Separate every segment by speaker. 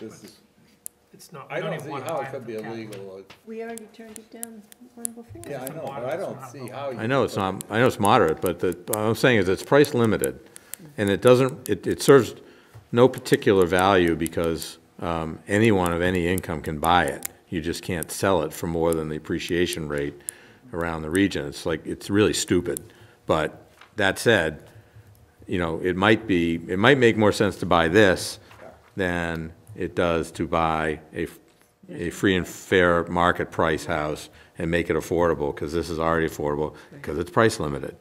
Speaker 1: This is,
Speaker 2: It's not,
Speaker 1: I
Speaker 2: we don't
Speaker 1: don't
Speaker 2: even
Speaker 1: see
Speaker 2: wanna
Speaker 1: how
Speaker 2: buy
Speaker 1: it could be
Speaker 2: from Capital.
Speaker 1: illegal.
Speaker 3: We already turned it down one before.
Speaker 1: Yeah, I know, but I don't see how. you-
Speaker 4: I know it's not, I know it's moderate, but the, what I'm saying is it's price limited, and it doesn't, it, it serves no particular value because um, anyone of any income can buy it. You just can't sell it for more than the appreciation rate around the region. It's like, it's really stupid. But that said, you know, it might be, it might make more sense to buy this than it does to buy a, a free and fair market price house and make it affordable, because this is already affordable, because it's price limited.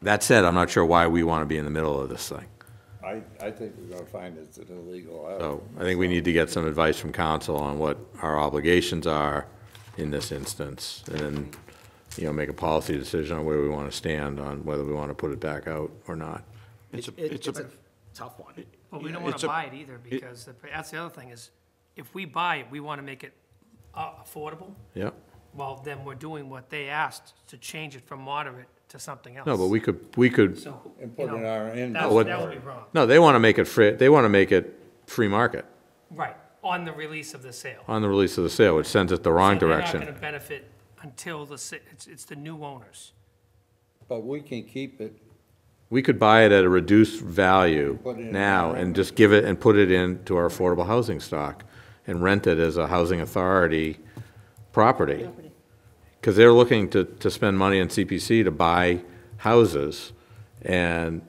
Speaker 4: That said, I'm not sure why we want to be in the middle of this thing.
Speaker 1: I, I think we're gonna find it's an illegal. out.
Speaker 4: So I think we need to get some advice from council on what our obligations are in this instance, and then, you know, make a policy decision on where we want to stand on whether we want to put it back out or not.
Speaker 5: It's a,
Speaker 6: It-
Speaker 5: it's a,
Speaker 6: tough one.
Speaker 2: But we
Speaker 5: Yeah,
Speaker 2: don't wanna
Speaker 5: it's a-
Speaker 2: buy it either, because the- that's the other thing is, if we buy it, we wanna make it uh, affordable.
Speaker 4: Yep.
Speaker 2: Well, then we're doing what they asked, to change it from moderate to something else.
Speaker 4: No, but we could, we could
Speaker 2: So,
Speaker 1: And
Speaker 2: you
Speaker 1: put it in
Speaker 2: know,
Speaker 1: our
Speaker 2: That
Speaker 1: inventory.
Speaker 2: would
Speaker 4: what-
Speaker 2: that would be wrong,
Speaker 4: No, they want to make it free, they want to make it free market
Speaker 2: right, on the release of the sale.
Speaker 4: on the release of the sale, which sends it the wrong
Speaker 2: So They're not
Speaker 4: direction.
Speaker 2: gonna benefit until the, sa- it's, it's the new owners.
Speaker 1: But we can keep it,
Speaker 4: We could buy it at a reduced value
Speaker 1: Put it in
Speaker 4: now
Speaker 1: our-
Speaker 4: and just give it and put it into our affordable housing stock and rent it as a housing authority property. Because they're looking to, to spend money in CPC to buy houses and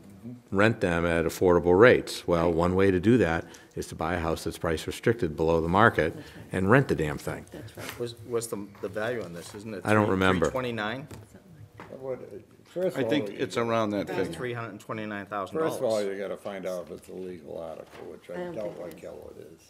Speaker 4: rent them at affordable rates. Well, one way to do that is to buy a house that's price restricted below the market and rent the damn thing.
Speaker 3: That's right.
Speaker 6: Was, what's the, the value on this, isn't it?
Speaker 4: I don't
Speaker 6: three-
Speaker 4: remember.
Speaker 6: 329?
Speaker 1: I would- first
Speaker 5: I
Speaker 1: of all.
Speaker 5: think it's around that figure.
Speaker 6: $329,000.
Speaker 1: First of all, you gotta find out if it's a legal article, which
Speaker 3: I
Speaker 1: I
Speaker 3: don't
Speaker 1: don't
Speaker 3: think
Speaker 1: like
Speaker 3: it
Speaker 1: how it is.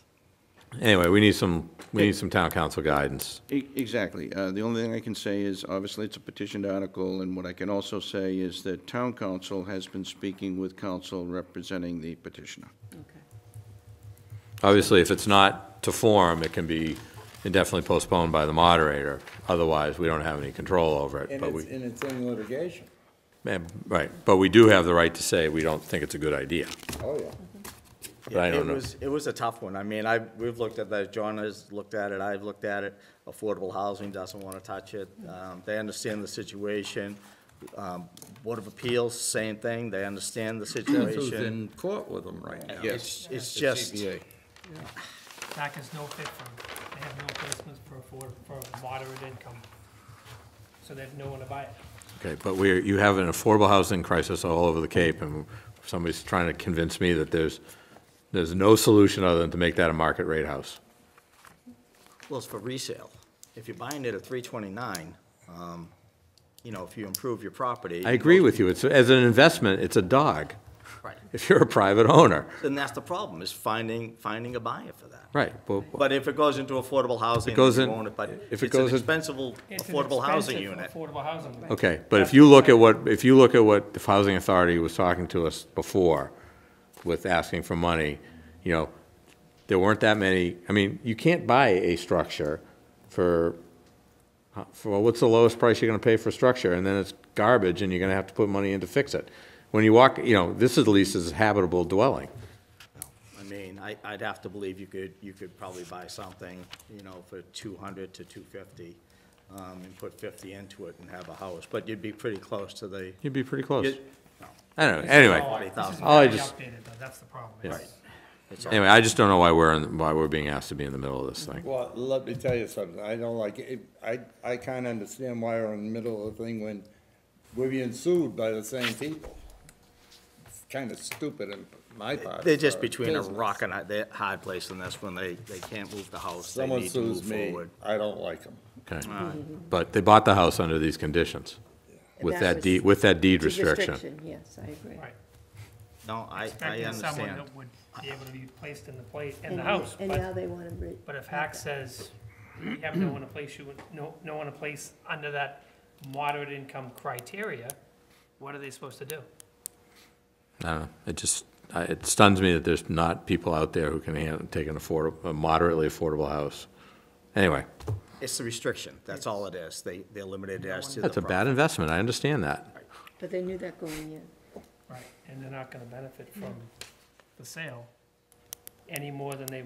Speaker 4: Anyway, we need some, we need some town council guidance.
Speaker 5: E- Exactly. Uh, The only thing I can say is, obviously, it's a petitioned article, and what I can also say is that town council has been speaking with council representing the petitioner.
Speaker 3: Okay.
Speaker 4: Obviously, if it's not to form, it can be indefinitely postponed by the moderator. Otherwise, we don't have any control over it,
Speaker 1: And
Speaker 4: but
Speaker 1: it's,
Speaker 4: we,
Speaker 1: and it's in litigation.
Speaker 4: eh, right, but we do have the right to say we don't think it's a good idea.
Speaker 1: Oh, yeah.
Speaker 4: but I don't know.
Speaker 6: It was, it was a tough one. I mean, I, we've looked at that, John has looked at it, I've looked at it. Affordable housing doesn't want to touch it. Um, They understand the situation. Um, Board of Appeals, same thing, they understand the situation.
Speaker 1: court with them right now.
Speaker 6: It's, it's just,
Speaker 2: That is no fit for, them. they have no placements for, for, for moderate income. So they have no one to buy it.
Speaker 4: Okay, but we're, you have an affordable housing crisis all over the Cape, and somebody's trying to convince me that there's, there's no solution other than to make that a market rate house.
Speaker 6: well, it's for resale. If you're buying it at 329, um, you know, if you improve your property.
Speaker 4: I agree with you, it's, as an investment, it's a dog,
Speaker 6: Right.
Speaker 4: if you're a private owner.
Speaker 6: Then that's the problem, is finding, finding a buyer for that.
Speaker 4: Right, well,
Speaker 6: But if it goes into affordable housing,
Speaker 4: If it goes
Speaker 6: you
Speaker 4: in-
Speaker 6: own it, but
Speaker 4: if
Speaker 6: it's
Speaker 4: it goes
Speaker 6: an
Speaker 4: in-
Speaker 6: expensive,
Speaker 2: It's an
Speaker 6: affordable housing
Speaker 2: expensive
Speaker 6: unit.
Speaker 2: Affordable housing.
Speaker 4: Okay, but if you look at what, if you look at what the housing authority was talking to us before with asking for money, you know, there weren't that many, I mean, you can't buy a structure for, for, what's the lowest price you're gonna pay for a structure? And then it's garbage and you're gonna have to put money in to fix it. When you walk, you know, this at least is habitable dwelling.
Speaker 6: I mean, I, I'd have to believe you could, you could probably buy something, you know, for two hundred to two fifty, um, and put fifty into it and have a house, but you'd be pretty close to the.
Speaker 4: You'd be pretty close.
Speaker 6: you-
Speaker 4: I don't know, anyway,
Speaker 2: This is
Speaker 4: all I
Speaker 2: very
Speaker 4: just-
Speaker 2: Outdated, though, that's the problem. It's-
Speaker 6: it's all-
Speaker 4: anyway, I just don't know why we're, in- why we're being asked to be in the middle of this thing.
Speaker 1: Well, let me tell you something, I don't like, it. I, I kinda understand why we're in the middle of the thing when we're being sued by the same people. It's kinda stupid in my part.
Speaker 6: They're just
Speaker 1: for
Speaker 6: between a
Speaker 1: business.
Speaker 6: rock and a, they're hard place in this one, they, they can't move the house, they
Speaker 1: Someone
Speaker 6: need to
Speaker 1: sues
Speaker 6: move
Speaker 1: me,
Speaker 6: forward.
Speaker 1: I don't like them.
Speaker 4: Okay, but they bought the house under these conditions, with
Speaker 3: That
Speaker 4: that
Speaker 3: was-
Speaker 4: deed, with that deed
Speaker 3: It's a
Speaker 4: restriction.
Speaker 3: Yes, I agree.
Speaker 2: Right.
Speaker 6: No, I, I
Speaker 2: Expecting someone
Speaker 6: understand.
Speaker 2: that would be able to be placed in the place, in
Speaker 3: And-
Speaker 2: the house,
Speaker 3: And
Speaker 2: but,
Speaker 3: now they want to re.
Speaker 2: but if Hack says, we have no one to place you, in- no, no one to place under that moderate income criteria, what are they supposed to do?
Speaker 4: I don't know. Uh, It just, I- it stuns me that there's not people out there who can hand- take an affordable, a moderately affordable house. Anyway,
Speaker 6: It's the restriction, that's all it is, they, they're limited as to the.
Speaker 4: that's a
Speaker 6: property.
Speaker 4: bad investment. I understand that.
Speaker 3: But they knew that going in.
Speaker 2: Right. And they're not gonna benefit from the sale any more than they